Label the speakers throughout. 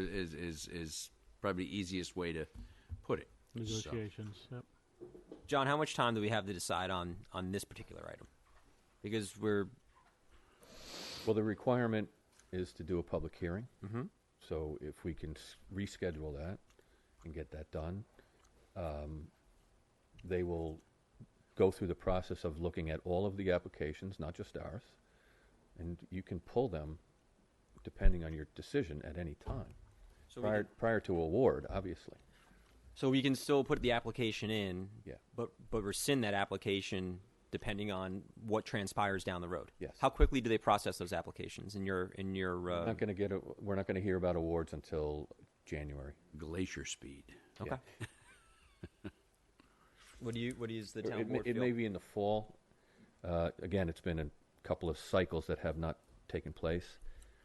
Speaker 1: is is is probably the easiest way to put it. So,
Speaker 2: Negotiations. Yep.
Speaker 3: John, how much time do we have to decide on on this particular item? Because we're
Speaker 4: Well, the requirement is to do a public hearing. Mm-hmm. So if we can s- reschedule that and get that done, um, they will go through the process of looking at all of the applications, not just ours. And you can pull them depending on your decision at any time.
Speaker 3: So we
Speaker 4: Prior, prior to award, obviously.
Speaker 3: so we can still put the application in.
Speaker 4: Yeah.
Speaker 3: But but rescind that application depending on what transpires down the road.
Speaker 4: Yes.
Speaker 3: How quickly do they process those applications in your in your? Uh,
Speaker 4: Not gonna get, a- we're not gonna hear about awards until January.
Speaker 1: glacier speed.
Speaker 3: okay. what do you what is the
Speaker 4: Or
Speaker 3: town
Speaker 4: it may-
Speaker 3: board
Speaker 4: It
Speaker 3: feel?
Speaker 4: may be in the fall. Uh, Again, it's been a couple of cycles that have not taken place.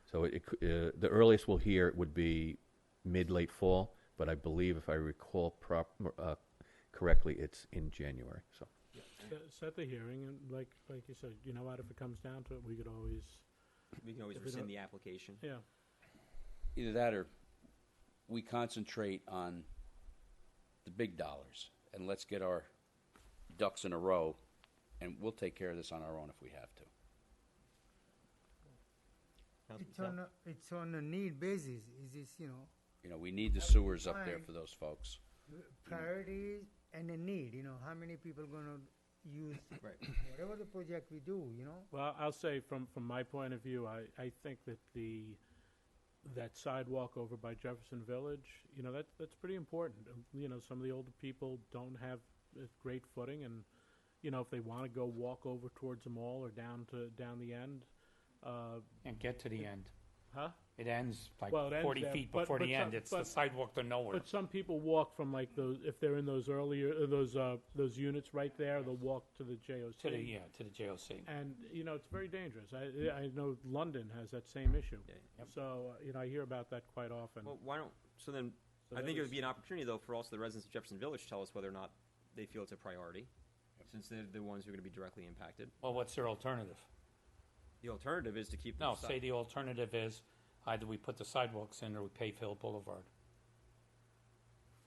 Speaker 4: So it, it cou- uh, the earliest we'll hear would be mid, late fall, but I believe if I recall prop, uh, correctly, it's in January, so.
Speaker 2: Set- Set the hearing, and like, like you said, you know what, if it comes down to it, we could always,
Speaker 3: we can always
Speaker 2: if we don't-
Speaker 3: rescind the application.
Speaker 2: yeah,
Speaker 5: Either that or we concentrate on the big dollars and let's get our ducks in a row and we'll take care of this on our own if we have to.
Speaker 6: It's on, a- it's on a need basis, is this, you know,
Speaker 5: You know, we need the sewers up there
Speaker 6: fine.
Speaker 5: for those folks.
Speaker 6: priorities and a need, you know, how many people gonna use whatever the project we do, you know?
Speaker 2: Well, I'll say from, from my point of view, I, I think that the, that sidewalk over by Jefferson Village, you know, that, that's pretty important. Um, You know, some of the older people don't have uh, great footing and, you know, if they wanna go walk over towards the mall or down to, down the end, uh,
Speaker 7: And get to the end.
Speaker 2: huh?
Speaker 7: It ends like
Speaker 2: Well, it ends
Speaker 7: forty
Speaker 2: there,
Speaker 7: feet
Speaker 2: but-
Speaker 7: before
Speaker 2: but
Speaker 7: the
Speaker 2: some-
Speaker 7: end. It's the
Speaker 2: but-
Speaker 7: sidewalk to nowhere.
Speaker 2: But some people walk from like those, if they're in those earlier, uh, those, uh, those units right there, they'll walk to the JOC.
Speaker 7: To the,
Speaker 3: E
Speaker 7: yeah, to the JOC.
Speaker 2: And, you know, it's very dangerous. I, I know London has that same issue.
Speaker 3: Yeah,
Speaker 2: So, uh, you know, I hear about that quite often.
Speaker 3: Well, why don't, so then,
Speaker 2: So
Speaker 3: I
Speaker 2: that
Speaker 3: think it
Speaker 2: was-
Speaker 3: would be an opportunity, though, for also the residents of Jefferson Village to tell us whether or not they feel it's a priority, since they're the ones who are gonna be directly impacted.
Speaker 7: Well, what's their alternative?
Speaker 3: The alternative is to keep.
Speaker 7: No,
Speaker 3: the si-
Speaker 7: say the alternative is either we put the sidewalks in or we pave Hill Boulevard.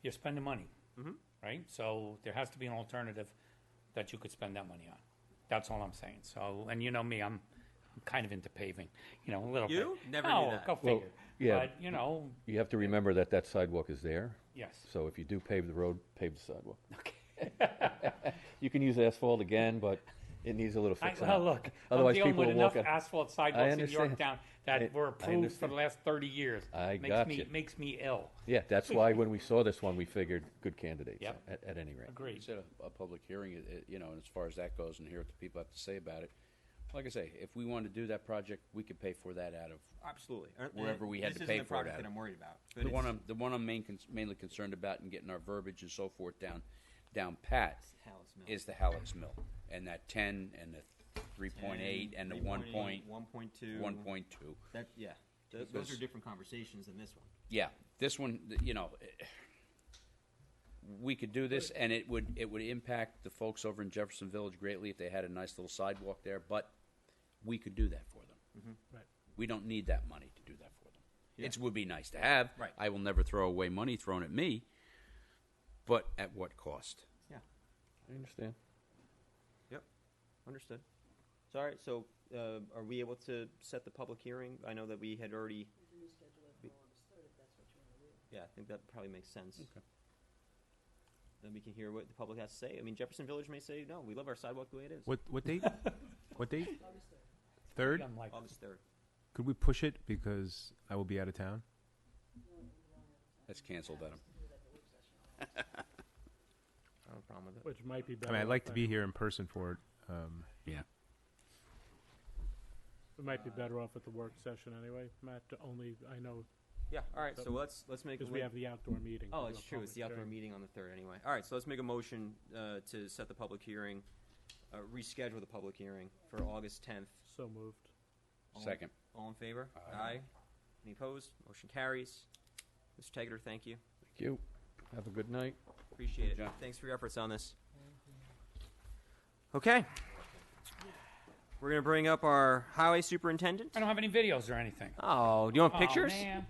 Speaker 7: You're spending money,
Speaker 2: Mm-hmm.
Speaker 7: right? So there has to be an alternative that you could spend that money on. That's all I'm saying. So, and you know me, I'm, I'm kind of into paving, you know, a little
Speaker 3: You?
Speaker 7: bit.
Speaker 3: Never knew
Speaker 7: no,
Speaker 3: that.
Speaker 7: Go
Speaker 4: Well,
Speaker 7: figure.
Speaker 4: yeah.
Speaker 7: But, you know,
Speaker 4: You have to remember that that sidewalk is there,
Speaker 7: yes.
Speaker 4: so if you do pave the road, pave the sidewalk. You can use asphalt again, but it needs a little
Speaker 7: I,
Speaker 4: fixing
Speaker 7: well,
Speaker 4: up.
Speaker 7: look,
Speaker 4: Otherwise,
Speaker 7: I'm dealing
Speaker 4: people
Speaker 7: with
Speaker 4: will
Speaker 7: enough
Speaker 4: walk out-
Speaker 7: asphalt
Speaker 4: I
Speaker 7: sidewalks in
Speaker 4: understand.
Speaker 7: York that
Speaker 4: I-
Speaker 7: were
Speaker 4: I
Speaker 7: approved for
Speaker 4: understand.
Speaker 7: the last 30 years.
Speaker 4: I
Speaker 7: makes
Speaker 4: got
Speaker 7: me,
Speaker 4: you.
Speaker 7: Makes me ill.
Speaker 4: Yeah, that's why when we saw this one, we figured good candidates,
Speaker 7: Yep.
Speaker 4: at, at any
Speaker 5: We
Speaker 4: rate.
Speaker 7: Agreed.
Speaker 5: said a, a public hearing, it- it- you know, and as far as that goes and hear what the people have to say about it. Like I say, if we wanted to do that project, we could pay for that out of
Speaker 3: Absolutely. And- and
Speaker 5: Wherever we had
Speaker 3: this
Speaker 5: to
Speaker 3: isn't
Speaker 5: pay
Speaker 3: the
Speaker 5: for it
Speaker 3: project
Speaker 5: at.
Speaker 3: That I'm worried about. but
Speaker 5: The one
Speaker 3: it's-
Speaker 5: I'm, the one I'm main, cons- mainly concerned about and getting our verbiage and so forth down, down pat
Speaker 3: Hallett's Mill.
Speaker 5: is the Hallett's Mill. And that ten and the three point eight and the one point,
Speaker 3: One point two.
Speaker 5: one point two.
Speaker 3: That, yeah. Th- Those are
Speaker 5: Because-
Speaker 3: different conversations than this one.
Speaker 5: Yeah, this one, th- you know, eh, we could do this and it would, it would impact the folks over in Jefferson Village greatly if they had a nice little sidewalk there, but we could do that for them.
Speaker 2: Right.
Speaker 5: We don't need that money to do that for them.
Speaker 3: Mm-hmm. Yeah.
Speaker 5: It would be nice to have.
Speaker 3: Right.
Speaker 5: I will never throw away money thrown at me, but at what cost?
Speaker 3: Yeah.
Speaker 4: I understand.
Speaker 3: Yep. Understood. So, all right. So, uh, are we able to set the public hearing? I know that we had already. Yeah, I think that probably makes sense. Okay. Then we can hear what the public has to say. I mean, Jefferson Village may say, no, we love our sidewalk the way it is.
Speaker 8: What what date? what date? Third?
Speaker 7: I'm like,
Speaker 3: August 3rd.
Speaker 8: Could we push it because I will be out of town?
Speaker 5: That's canceled Adam.
Speaker 3: I don't have a problem with it.
Speaker 2: Which might be
Speaker 8: I
Speaker 2: better.
Speaker 8: mean, I'd like to
Speaker 2: off
Speaker 8: be
Speaker 2: that-
Speaker 8: here in person for it. Um,
Speaker 5: Yeah.
Speaker 2: We might be better off at the work session anyway, Matt, to only, I know,
Speaker 3: Yeah, all right.
Speaker 2: So-
Speaker 3: So let's let's make. a
Speaker 2: because we
Speaker 3: mo-
Speaker 2: have the outdoor meeting.
Speaker 3: Oh,
Speaker 2: to do
Speaker 3: it's
Speaker 2: a
Speaker 3: true. It's
Speaker 2: public
Speaker 3: the outdoor
Speaker 2: hearing.
Speaker 3: meeting on the third anyway. All right, so let's make a motion uh, to set the public hearing, uh, reschedule the public hearing for August tenth.
Speaker 2: So moved.
Speaker 5: Second.
Speaker 3: All in favor? Aye. Any opposed? Motion carries. Mr. Taggart, thank you.
Speaker 4: Thank you. Have a good night.
Speaker 3: Appreciate
Speaker 5: Good
Speaker 3: it.
Speaker 5: job.
Speaker 3: Thanks for your efforts on this. Okay. We're gonna bring up our highway superintendent.
Speaker 7: I don't have any videos or anything.
Speaker 3: Oh, do you want
Speaker 7: Oh,
Speaker 3: pictures?
Speaker 7: man.